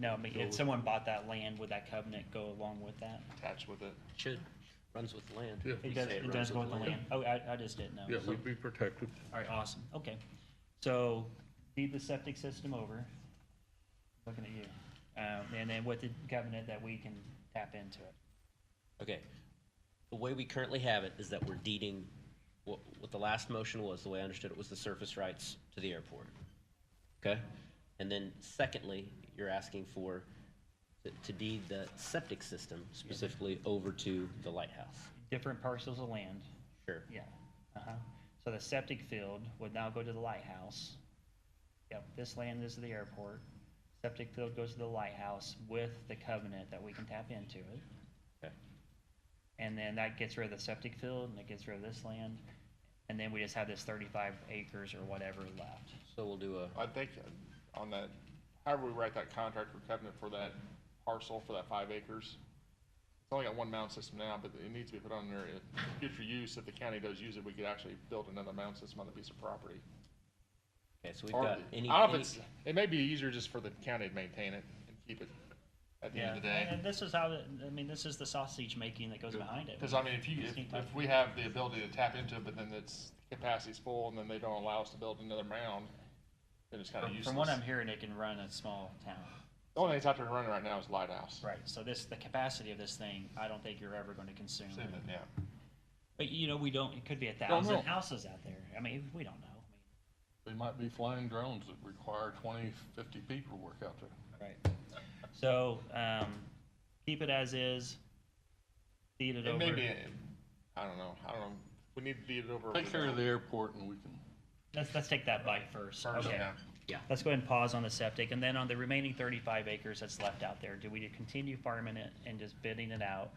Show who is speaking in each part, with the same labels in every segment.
Speaker 1: No, but if someone bought that land, would that covenant go along with that?
Speaker 2: attached with it.
Speaker 3: Should, runs with the land.
Speaker 4: Yeah.
Speaker 3: You
Speaker 1: It
Speaker 3: say
Speaker 1: does, it
Speaker 3: runs
Speaker 1: does go
Speaker 3: with
Speaker 1: with the land. Oh, I, I just didn't know.
Speaker 4: Yeah, we'd be protected.
Speaker 1: All right, awesome, okay. So, feed the septic system over, looking at you. Um, and then with the covenant that we can tap into it.
Speaker 3: Okay. The way we currently have it is that we're deeding, what, what the last motion was, the way I understood it, was the surface rights to the airport. Okay? And then secondly, you're asking for, to- to deed the septic system specifically over to the lighthouse.
Speaker 1: Different parcels of land,
Speaker 3: Sure.
Speaker 1: yeah, uh-huh. So the septic field would now go to the lighthouse. Yep, this land is the airport. Septic field goes to the lighthouse with the covenant that we can tap into it.
Speaker 3: Okay.
Speaker 1: And then that gets rid of the septic field and it gets rid of this land. And then we just have this thirty-five acres or whatever left.
Speaker 3: So we'll do a,
Speaker 2: I think on that, however we write that contract or covenant for that parcel, for that five acres, it's only got one mound system now, but it needs to be put on there. If Future use, if the county does use it, we could actually build another mound system on the piece of property.
Speaker 3: okay, so we've
Speaker 2: Or-
Speaker 3: got any,
Speaker 2: I don't know
Speaker 3: any-
Speaker 2: if it's, it may be easier just for the county to maintain it and keep it at the end of the
Speaker 1: and-
Speaker 2: day.
Speaker 1: And this is how, the- I mean, this is the sausage making that goes behind it.
Speaker 2: Cause I mean, if you, if,
Speaker 1: Distinct
Speaker 2: if we have the ability to tap into it, but then its capacity's full and then they don't allow us to build another mound, then it's kinda
Speaker 1: From-
Speaker 2: useless.
Speaker 1: From what I'm hearing, it can run a small town.
Speaker 2: The only thing that's out there running right now is Lighthouse.
Speaker 1: Right. So this, the capacity of this thing, I don't think you're ever gonna consume.
Speaker 2: Same thing, yeah.
Speaker 1: But you know, we don't, it could be a
Speaker 2: Don't know.
Speaker 1: thousand houses out there. I mean, we don't know.
Speaker 4: They might be flying drones that require 20, 50 people to work out there.
Speaker 1: Right. So, um, keep it as is, feed it
Speaker 2: It
Speaker 1: over.
Speaker 2: may be, I don't know, I don't know, we need to beat it over.
Speaker 4: Take
Speaker 2: with
Speaker 4: care of
Speaker 2: that.
Speaker 4: the airport and we can,
Speaker 1: Let's, let's take that bite first.
Speaker 2: First,
Speaker 1: Okay.
Speaker 2: yeah.
Speaker 1: Let's go ahead and pause on the septic, and then on the remaining thirty-five acres that's left out there, do we continue farming it and just bidding it out?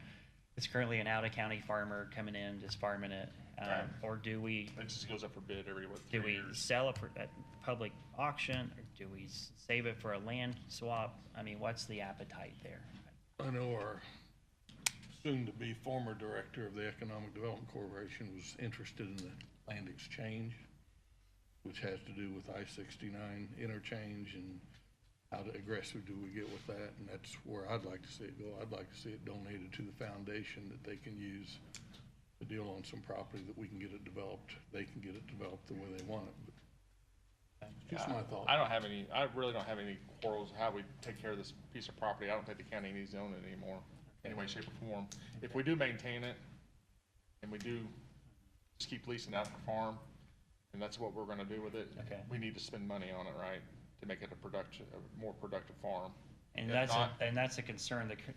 Speaker 1: It's currently an out-of-county farmer coming in, just farming it,
Speaker 2: Right.
Speaker 1: um, or do we,
Speaker 2: It just goes up for bid every, what,
Speaker 1: do
Speaker 2: three
Speaker 1: we
Speaker 2: years?
Speaker 1: sell it for, at public auction, or do we s- save it for a land swap? I mean, what's the appetite there?
Speaker 4: I know our soon-to-be former director of the Economic Development Corporation was interested in the land exchange, which has to do with I-69 interchange and how aggressive do we get with that? And that's where I'd like to see it go. I'd like to see it donated to the foundation that they can use to deal on some property that we can get it developed. They can get it developed the way they want it. But Just my thought.
Speaker 2: I don't have any, I really don't have any quarrels how we take care of this piece of property, I don't think the county needs to own it anymore, any way, shape, or form. If we do maintain it, and we do just keep leasing out the farm, and that's what we're gonna do with it.
Speaker 1: Okay.
Speaker 2: We need to spend money on it, right, to make it a production, a more productive farm.
Speaker 1: And
Speaker 2: If
Speaker 1: that's, a-
Speaker 2: not-
Speaker 1: and that's a concern, the, cur-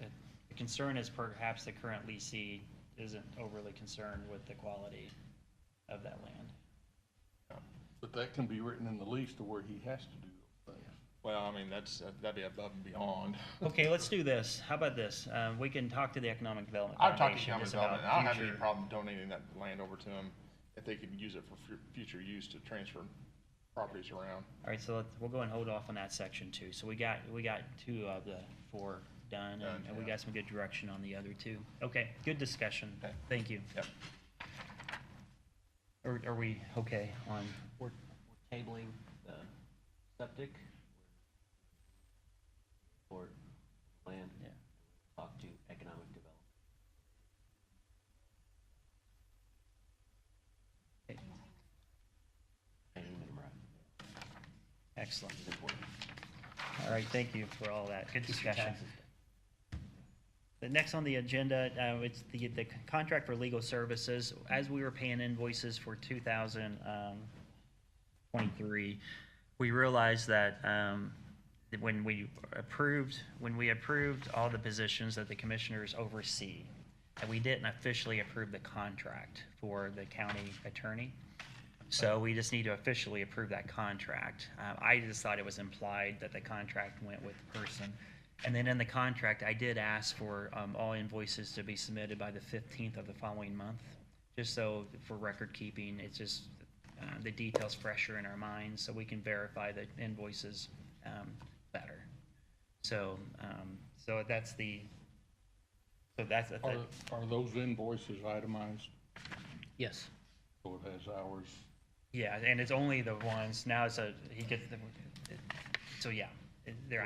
Speaker 1: the concern is perhaps the current leasee isn't overly concerned with the quality of that land.
Speaker 4: But that can be written in the lease to where he has to do those things.
Speaker 2: Well, I mean, that's, uh, that'd be above and beyond.
Speaker 1: Okay, let's do this. How about this? Um, we can talk to the Economic Development
Speaker 2: I've talked to
Speaker 1: Foundation
Speaker 2: Cameron
Speaker 1: just
Speaker 2: about
Speaker 1: about
Speaker 2: it, and I don't have any
Speaker 1: future.
Speaker 2: problem donating that land over to them if they can use it for fu- future use to transfer properties around.
Speaker 1: All right, so let we'll go and hold off on that section too. So we got, we got two of the four done
Speaker 2: Done,
Speaker 1: and, and we
Speaker 2: yeah.
Speaker 1: got some good direction on the other two. Okay, good discussion.
Speaker 2: Okay.
Speaker 1: Thank you.
Speaker 2: Yep.
Speaker 1: Are, are we okay on,
Speaker 3: we're we're tabling the septic or land.
Speaker 1: Yeah.
Speaker 3: Talk to economic development. Painting them right
Speaker 1: excellent.
Speaker 3: is important.
Speaker 1: All right, thank you for all that. Good
Speaker 3: Keeps your
Speaker 1: discussion.
Speaker 3: taxes down.
Speaker 1: The next on the agenda, uh, it's the, the contract for legal services. As we were paying invoices for two thousand, um, twenty-three, we realized that, um, that when we approved, when we approved all the positions that the commissioners oversee, and we didn't officially approve the contract for the county attorney. So we just need to officially approve that contract. Uh, I just thought it was implied that the contract went with the person. And then in the contract, I did ask for um, all invoices to be submitted by the 15th of the following month, just so for record keeping, it's just uh, the details fresher in our minds, so we can verify the invoices um, better. So, um, so that's the, so that's,
Speaker 4: Are, are those invoices itemized?
Speaker 3: Yes.
Speaker 4: So it has hours?
Speaker 1: yeah, and it's only the ones, now it's a, he gets the, so yeah, they're